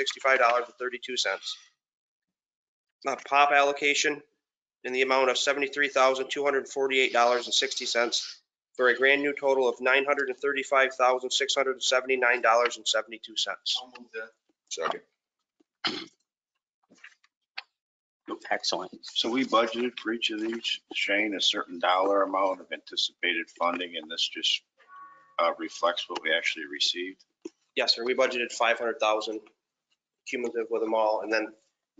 sixty-five dollars and thirty-two cents. Pop allocation in the amount of seventy-three thousand, two hundred and forty-eight dollars and sixty cents for a grand new total of nine hundred and thirty-five thousand, six hundred and seventy-nine dollars and seventy-two cents. I'll move that. Second. Excellent. So we budgeted for each of these, Shane, a certain dollar amount of anticipated funding, and this just uh, reflects what we actually received. Yes, sir, we budgeted five hundred thousand cumulative with them all, and then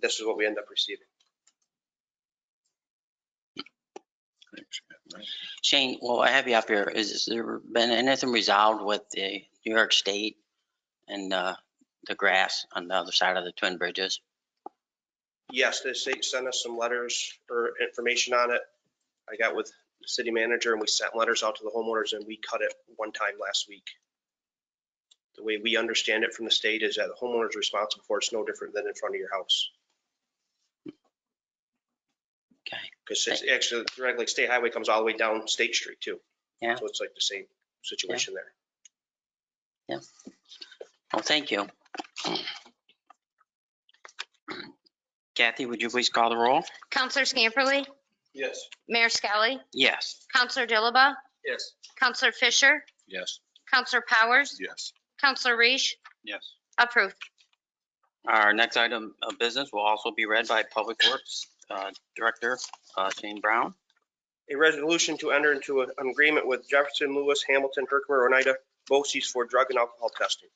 this is what we end up receiving. Shane, well, I have you up here. Is is there been anything resolved with the New York State and uh, the grass on the other side of the Twin Bridges? Yes, the state sent us some letters or information on it. I got with the city manager and we sent letters out to the homeowners and we cut it one time last week. The way we understand it from the state is that the homeowner is responsible for it. It's no different than in front of your house. Okay. Because it's actually, Red Lake State Highway comes all the way down State Street too. Yeah. So it's like the same situation there. Well, thank you. Kathy, would you please call the roll? Counselor Scamperly, Yes. Mayor Skelly, Yes. Counselor Dilaba, Yes. Counselor Fisher, Yes. Counselor Powers, Yes. Counselor Reese, Yes. approved. Our next item of business will also be read by Public Works uh, Director uh, Shane Brown. a resolution to enter into a- an agreement with Jefferson, Lewis, Hamilton, Herkimer, Oneida, BOCES for drug and alcohol testing.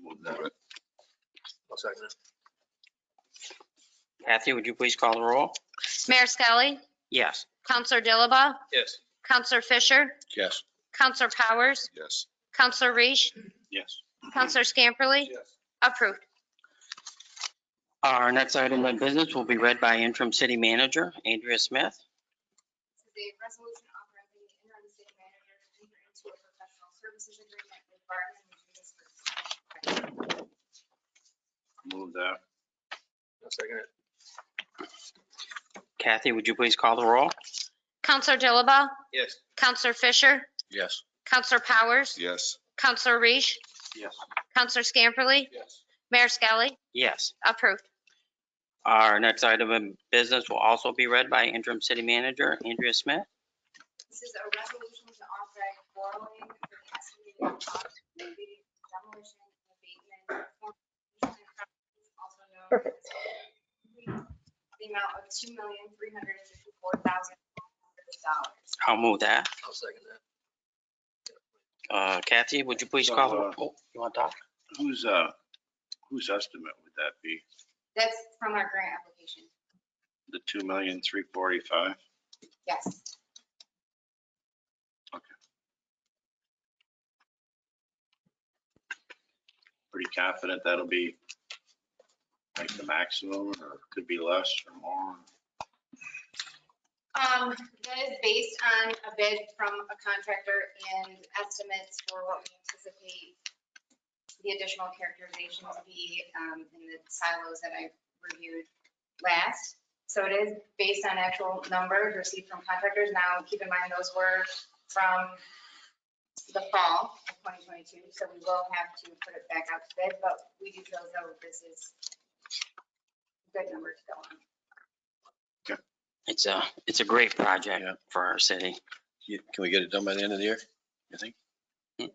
Move that. I'll second it. Kathy, would you please call the roll? Mayor Skelly, Yes. Counselor Dilaba, Yes. Counselor Fisher, Yes. Counselor Powers, Yes. Counselor Reese, Yes. Counselor Scamperly, Yes. approved. Our next item of business will be read by interim city manager Andrea Smith. This is a resolution authorizing the interim city manager to enter into a professional services agreement with Barton and Davis Group. Move that. I'll second it. Kathy, would you please call the roll? Counselor Dilaba, Yes. Counselor Fisher, Yes. Counselor Powers, Yes. Counselor Reese, Yes. Counselor Scamperly, Yes. Mayor Skelly, Yes. approved. Our next item of business will also be read by interim city manager Andrea Smith. This is a resolution to authorize borrowing for the estimated cost of the demolition and abatement. of former properties, Also known as. The amount of two million, three hundred and fifty-four thousand dollars. I'll move that. I'll second that. Uh, Kathy, would you please call the roll? Oh, You want to talk? Whose, uh, whose estimate would that be? That's from our grant application. The two million, three forty-five? Yes. Pretty confident that'll be like the maximum or could be less or more? Um, that is based on a bid from a contractor and estimates for what we anticipate the additional characterization to be, um, in the silos that I reviewed last. So it is based on actual numbers received from contractors. Now, keep in mind, those were from the fall of twenty twenty-two, so we will have to put it back out to bid, but we do feel as though this is a good number to go on. It's a, it's a great project for our city. You- Can we get it done by the end of the year, you think? we,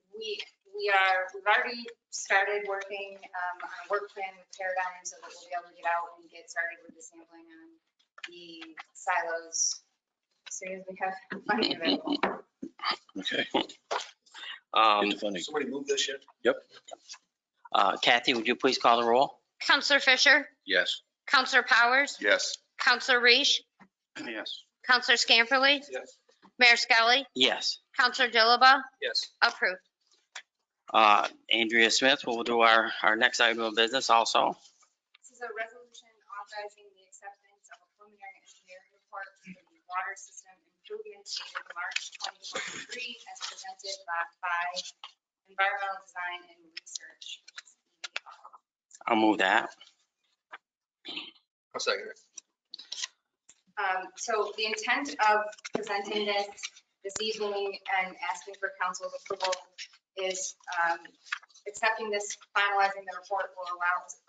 we are, we've already started working um, on a work plan with Paradigm so that we'll be able to get out and get started with the sampling on the silos as soon as we have funding available. Okay, Um, get the funding. Somebody move this yet? uh, Kathy, would you please call the roll? Counselor Fisher, Yes. Counselor Powers, Yes. Counselor Reese, Yes. Counselor Scamperly, Yes. Mayor Skelly, Yes. Counselor Dilaba, Yes. approved. Uh, Andrea Smith will do our, our next item of business also. This is a resolution authorizing the acceptance of a preliminary engineering report for the water system improvements dated March 2023 as presented by- by Environmental Design and Research. which is E EDR. I'll move that. I'll second it. Um, So the intent of presenting this this evening and asking for council's approval is um, accepting this, finalizing the report will allow us